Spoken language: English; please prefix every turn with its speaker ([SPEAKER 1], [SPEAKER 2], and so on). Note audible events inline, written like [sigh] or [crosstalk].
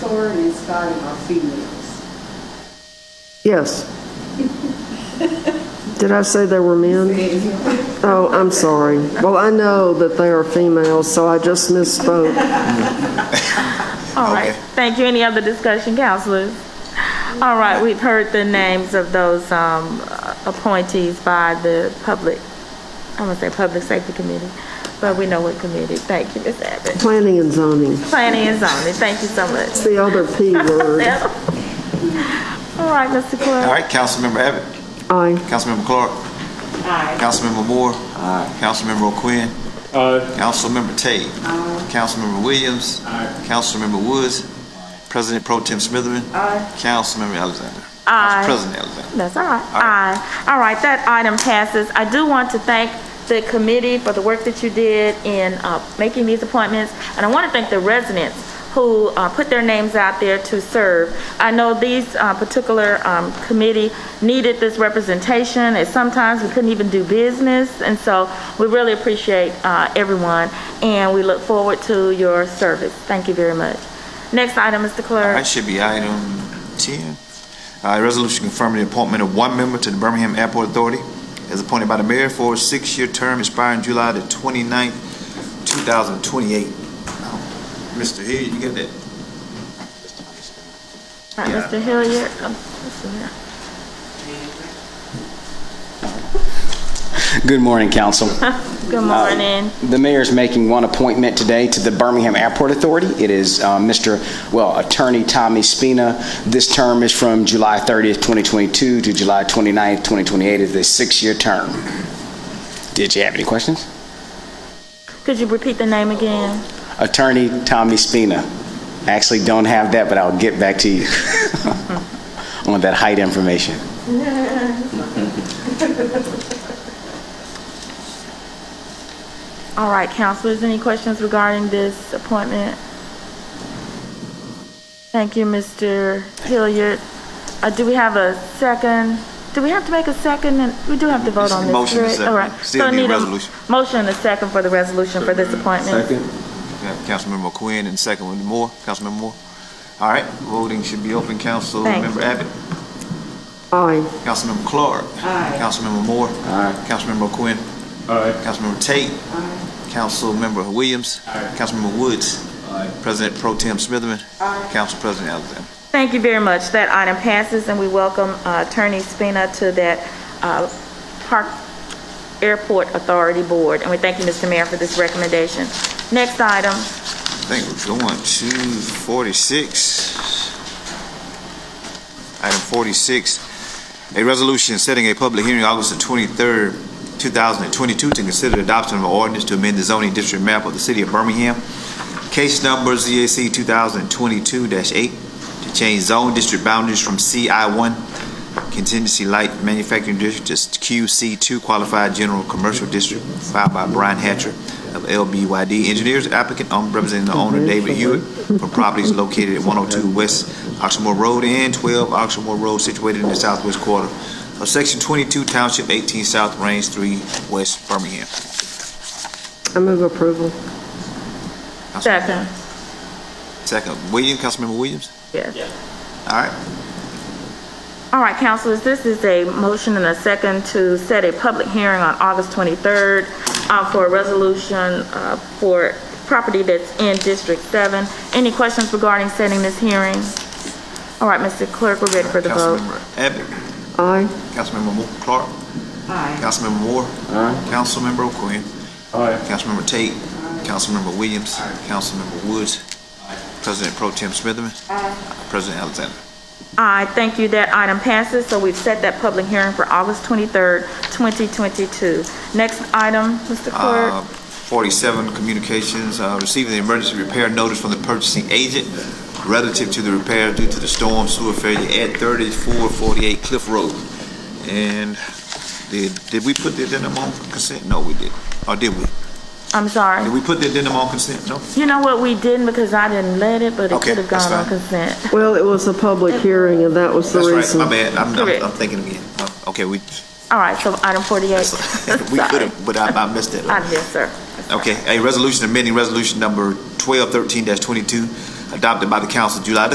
[SPEAKER 1] Thorne and Scott and our females.
[SPEAKER 2] Yes. Did I say they were men? Oh, I'm sorry. Well, I know that they are females, so I just misspoke.
[SPEAKER 3] All right, thank you. Any other discussion, counselors? All right, we've heard the names of those um, appointees by the public, I'm gonna say Public Safety Committee, but we know what committee. Thank you, Ms. Abbott.
[SPEAKER 2] Planning and zoning,
[SPEAKER 3] Planning and zoning, thank you so much.
[SPEAKER 2] the other P word.
[SPEAKER 3] All right, Mr. Clerk.
[SPEAKER 4] All right, Councilmember Abbott,
[SPEAKER 2] Aye.
[SPEAKER 4] Councilmember Clark. Aye. Councilmember Moore. Aye. Councilmember O'Quinn.
[SPEAKER 5] Aye.
[SPEAKER 4] Councilmember Tate. Aye. Councilmember Williams. Aye. Councilmember Woods. President Pro Tem Smitherman. Aye. Councilmember Alexander.
[SPEAKER 3] Aye.
[SPEAKER 4] Council President Alexander.
[SPEAKER 3] That's all right.
[SPEAKER 4] right.
[SPEAKER 3] Aye. All right, that item passes. I do want to thank the committee for the work that you did in uh, making these appointments, and I want to thank the residents who uh, put their names out there to serve. I know these uh, particular um, committee needed this representation, and sometimes we couldn't even do business, and so we really appreciate uh, everyone, and we look forward to your service. Thank you very much. Next item, Mr.
[SPEAKER 4] All
[SPEAKER 3] Clerk.
[SPEAKER 4] right, should be item 10. Uh, A resolution confirming the appointment of one member to the Birmingham Airport Authority as appointed by the mayor for a six-year term expiring July the 29th, 2028. Mr. Hill, you get that?
[SPEAKER 3] All right,
[SPEAKER 4] yeah.
[SPEAKER 3] Mr. Hilliard. Oh, Mr. Hilliard.
[SPEAKER 6] Good morning, Council.
[SPEAKER 3] Good morning.
[SPEAKER 6] The mayor is making one appointment today to the Birmingham Airport Authority. It is uh, Mr., well, Attorney Tommy Spina. This term is from July 30th, 2022 to July 29th, 2028. It's a six-year term. Did you have any questions?
[SPEAKER 3] Could you repeat the name again?
[SPEAKER 6] Attorney Tommy Spina. I Actually, don't have that, but I'll get back to you [laughs] on that height information.
[SPEAKER 3] All right, counselors, any questions regarding this appointment? Thank you, Mr. Hilliard. Uh, do we have a second? Do we have to make a second? And We do have to vote on this,
[SPEAKER 4] Motion
[SPEAKER 3] correct?
[SPEAKER 4] and second.
[SPEAKER 3] All right.
[SPEAKER 4] Still
[SPEAKER 3] So I
[SPEAKER 4] need a
[SPEAKER 3] m-
[SPEAKER 4] resolution.
[SPEAKER 3] Motion and a second for the resolution for this appointment.
[SPEAKER 4] We have Councilmember Quinn and second one Moore, Councilmember Moore. All right, voting should be open.
[SPEAKER 3] Thank you.
[SPEAKER 4] Councilmember Abbott,
[SPEAKER 2] Aye.
[SPEAKER 4] Councilmember Clark. Aye. Councilmember Moore. Aye. Councilmember Quinn.
[SPEAKER 5] Aye.
[SPEAKER 4] Councilmember Tate. Councilmember Williams. Councilmember Woods. President Pro Tem Smitherman. Council President Alexander.
[SPEAKER 3] Thank you very much. That item passes, and we welcome uh, Attorney Spina to that uh, Park Airport Authority Board. And we thank you, Mr. Mayor, for this recommendation. Next item.
[SPEAKER 4] I think we're going to 46. Item 46, a resolution setting a public hearing August the 23rd, 2022, to consider the adoption of an ordinance to amend the zoning district map of the city of Birmingham, case number ZAC 2022-8, to change zone district boundaries from CI1 contingency light manufacturing district to QC2 qualified general commercial district, filed by Brian Hatcher of LBYD Engineers, applicant um, representing the owner David Hewitt for properties located at 102 West Oxmoor Road and 12 Oxmoor Road, situated in the southwest quarter of Section 22, Township 18 South, Range 3, West Birmingham.
[SPEAKER 2] I move approval.
[SPEAKER 3] Second.
[SPEAKER 4] Second, Williams, Councilmember Williams?
[SPEAKER 3] Yes.
[SPEAKER 4] All right,
[SPEAKER 3] All right, councilors, this is a motion and a second to set a public hearing on August 23rd uh, for a resolution uh, for property that's in District 7. Any questions regarding setting this hearing? All right, Mr. Clerk, we're ready for the vote.
[SPEAKER 4] Councilmember Abbott,
[SPEAKER 2] Aye.
[SPEAKER 4] Councilmember Mo- Clark,
[SPEAKER 1] Aye.
[SPEAKER 4] Councilmember Moore, Councilmember O'Quinn,
[SPEAKER 5] Aye.
[SPEAKER 4] Councilmember Tate. Councilmember Williams. Councilmember Woods. President Pro Tem Smitherman. President Alexander.
[SPEAKER 3] Aye, thank you. That item passes, so we've set that public hearing for August 23rd, 2022. Next item, Mr. Clerk.
[SPEAKER 4] Uh, 47, communications, uh, receiving the emergency repair notice from the purchasing agent relative to the repair due to the storm sewer failure at 3448 Cliff Road. And did, did we put the addendum on consent? No, we didn't. Or did we?
[SPEAKER 3] I'm sorry.
[SPEAKER 4] Did we put the addendum on consent? No?
[SPEAKER 3] You know what, we didn't because I didn't let it, but it
[SPEAKER 4] Okay,
[SPEAKER 3] could have
[SPEAKER 4] that's
[SPEAKER 3] gone on
[SPEAKER 4] fine.
[SPEAKER 3] consent.
[SPEAKER 2] Well, it was a public hearing, and that was the
[SPEAKER 4] That's
[SPEAKER 2] reason.
[SPEAKER 4] right, my bad. I'm- I'm, I'm
[SPEAKER 3] Correct.
[SPEAKER 4] thinking again. Uh, Okay, we, [laughs]
[SPEAKER 3] All right, so item 48.
[SPEAKER 4] we could
[SPEAKER 3] Sorry.
[SPEAKER 4] have, but I I missed it.
[SPEAKER 3] I'm here, sir.
[SPEAKER 4] Okay, a resolution amending resolution number 1213-22 adopted by the council July the